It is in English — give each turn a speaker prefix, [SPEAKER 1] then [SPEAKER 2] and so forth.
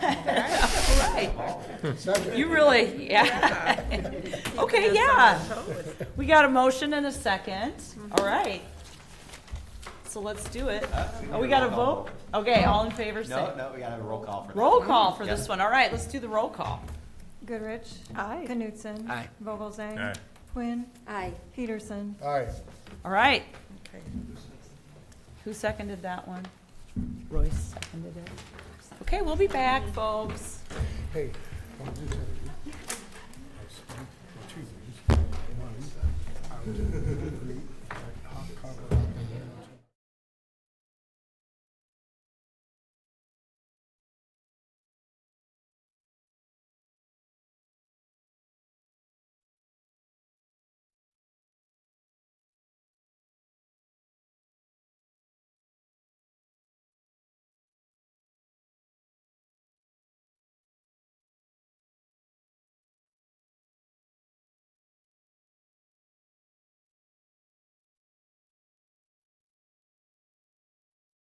[SPEAKER 1] You really, yeah. Okay, yeah. We got a motion and a second. All right. So let's do it.
[SPEAKER 2] Uh,
[SPEAKER 1] Oh, we got a vote? Okay, all in favor, say.
[SPEAKER 2] No, no, we gotta have a roll call for that.
[SPEAKER 1] Roll call for this
[SPEAKER 2] Yeah.
[SPEAKER 1] one. All right, let's do the roll call.
[SPEAKER 3] Goodrich. Aye. Knutson.
[SPEAKER 2] Aye.
[SPEAKER 3] Vogelzang.
[SPEAKER 4] Aye.
[SPEAKER 3] Quinn.
[SPEAKER 5] Aye.
[SPEAKER 3] Peterson.
[SPEAKER 6] Aye.
[SPEAKER 1] All right. Who seconded that one? Royce seconded it. Okay, we'll be back, folks.
[SPEAKER 6] Hey, want to do something? Two things. One, I was in a group at Hot Cover